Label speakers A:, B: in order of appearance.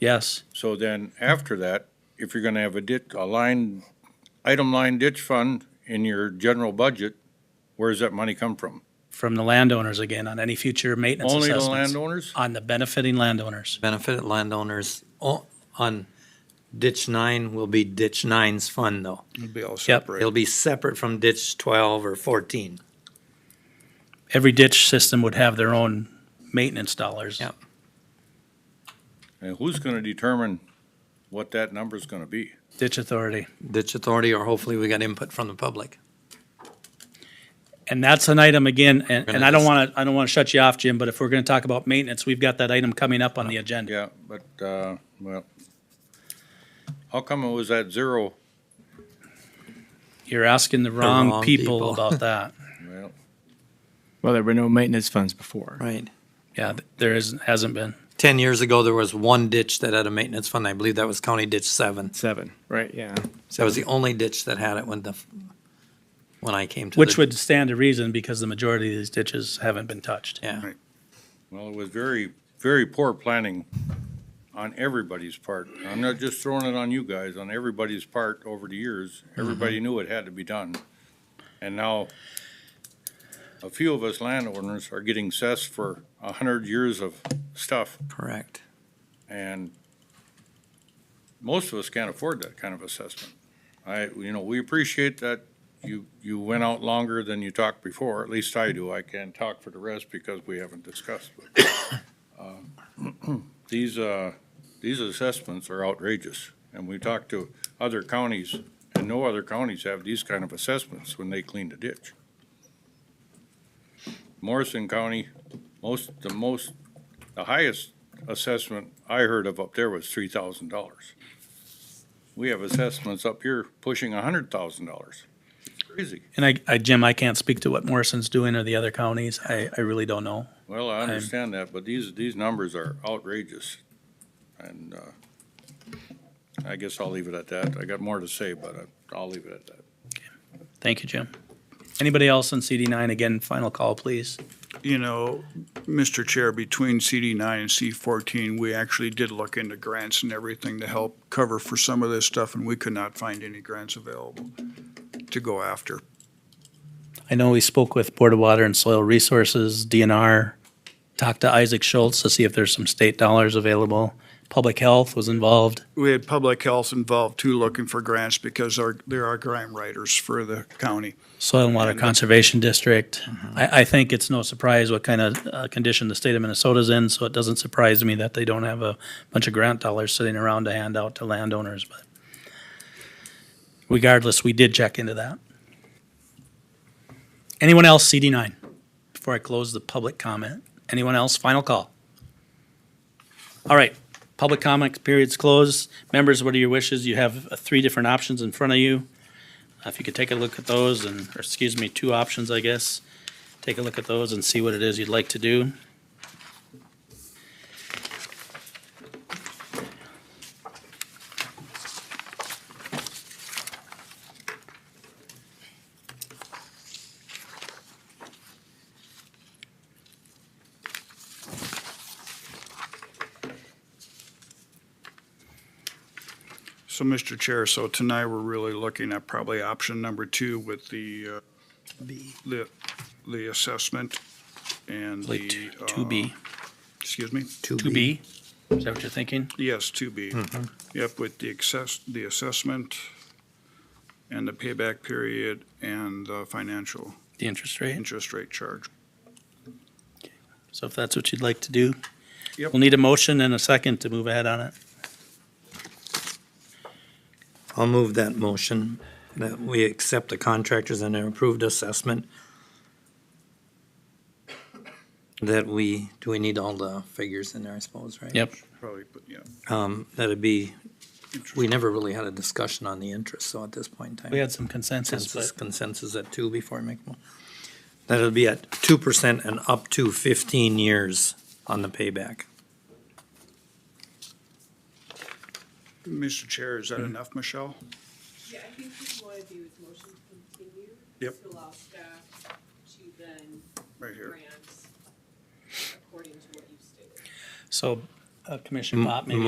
A: Yes.
B: So then after that, if you're gonna have a ditch, a line, item line ditch fund in your general budget, where does that money come from?
A: From the landowners again on any future maintenance
B: Only the
A: assessments.
B: landowners?
A: On the benefiting landowners.
C: Benefit landowners o- on ditch nine will be ditch nine's fund though.
D: It'd be all
A: Yep.
C: It'll
D: separate.
C: be separate from ditch twelve or fourteen.
A: Every ditch system would have their own maintenance dollars.
C: Yep.
B: And who's gonna determine what that number's gonna be?
A: Ditch authority.
C: Ditch authority, or hopefully we got input from the public.
A: And that's an item again, and,
C: Gonna
A: and I don't
C: just-
A: want to, I don't want to shut you off, Jim, but if we're going to talk about maintenance, we've got that item coming up on the agenda.
B: Yeah, but, uh, well, how come it was at zero?
A: You're asking the wrong
C: wrong
A: people
C: people.
A: about that.
B: Well,
E: Well, there were no maintenance funds before.
C: Right.
A: Yeah, th- there is, hasn't been.
C: Ten years ago, there was one ditch that had a maintenance fund. I believe that was County Ditch Seven.
E: Seven, right, yeah.
C: That was the only ditch that had it when the, when I came to.
A: Which
C: the-
A: would stand to reason because the majority of these ditches haven't been touched.
C: Yeah,
B: well, it was very, very poor planning on everybody's part. I'm not just throwing it on you guys, on everybody's part over the years. Everybody knew it had to be done. And now, a few of us landowners are getting assessed for a hundred years of stuff,
C: correct.
B: and most of us can't afford that kind of assessment. I, you know, we appreciate that you, you went out longer than you talked before, at least I do. I can't talk for the rest because we haven't discussed. but, uh, These, uh, these assessments are outrageous, and we talked to other counties, and no other counties have these kind of assessments when they clean the ditch. Morrison County, most, the most, the highest assessment I heard of up there was three thousand dollars. We have assessments up here pushing a hundred thousand dollars. Crazy.
A: And I, I, Jim, I can't speak to what Morrison's doing or the other counties. I, I really don't know.
B: Well, I understand that, but these, these numbers are outrageous. And, uh, I guess I'll leave it at that. I got more to say, but I- I'll leave it at that.
A: Thank you, Jim. Anybody else on CD nine? Again, final call, please.
D: You know, Mr. Chair, between CD nine and C fourteen, we actually did look into grants and everything to help cover for some of this stuff, and we could not find any grants available to go after.
A: I know we spoke with Board of Water and Soil Resources, DNR, talked to Isaac Schultz to see if there's some state dollars available. Public Health was involved.
D: We had public health involved too, looking for grants because our, there are grant writers for the county.
A: Soil and Water Conservation District. I, I think it's no surprise what kind of uh, condition the state of Minnesota's in, so it doesn't surprise me that they don't have a bunch of grant dollars sitting around to hand out to landowners. But regardless, we did check into that. Anyone else, CD nine? Before I close the public comment, anyone else? Final call. All right, public comment period's closed. Members, what are your wishes? You have uh, three different options in front of you. Uh, If you could take a look at those and, or excuse me, two options, I guess. Take a look at those and see what it is you'd like to do.
D: So, Mr. Chair, so tonight we're really looking at probably option number two with the, uh, the, the assessment and
A: Like
D: the.
A: two
D: uh,
A: B,
D: Excuse me?
A: two B? Is that what you're thinking?
D: Yes, two B. Yep, with the access, the assessment and the payback period and the financial
A: The interest rate?
D: interest rate charge.
A: So if that's what you'd like to do.
D: Yep.
A: We'll need a motion and a second to move ahead on it.
C: I'll move that motion that we accept the contractors and their approved assessment. That we, do we need all the figures in there, I suppose, right?
A: Yep.
D: Probably, but yeah.
C: Um, that'd be,
D: interest-
C: we never really had a discussion on the interest, so at this point in time.
A: We had some consensus,
C: Consensus,
A: but
C: consensus at two before I make one. That'll be at two percent and up to fifteen years on the payback.
D: Mr. Chair, is that enough, Michelle?
F: Yeah, I think what you want to do is motion to continue.
D: Yep.
F: To allow staff to then
D: Right here.
F: grant according to what you stated.
A: so uh, Commissioner
C: M-
A: Pop, maybe